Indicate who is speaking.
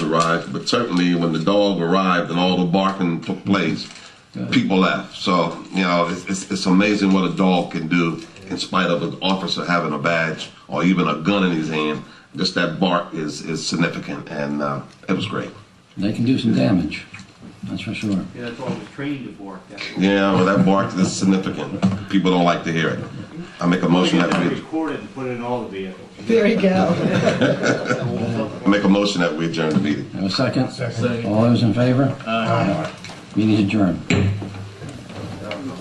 Speaker 1: arrived, but certainly when the dog arrived and all the barking took place, people left. So you know, it's, it's, it's amazing what a dog can do in spite of an officer having a badge or even a gun in his hand. Just that bark is is significant, and uh, it was great.
Speaker 2: They can do some damage, that's for sure.
Speaker 3: Yeah, that's all we're trained to bark at.
Speaker 1: Yeah, well, that bark is significant. People don't like to hear it. I make a motion that
Speaker 3: Get that
Speaker 1: we
Speaker 3: recorded and put it in all the vehicles.
Speaker 4: There you go.
Speaker 1: I make a motion that we adjourn the meeting.
Speaker 2: Have a second? All those in favor? Aye. Meeting adjourned.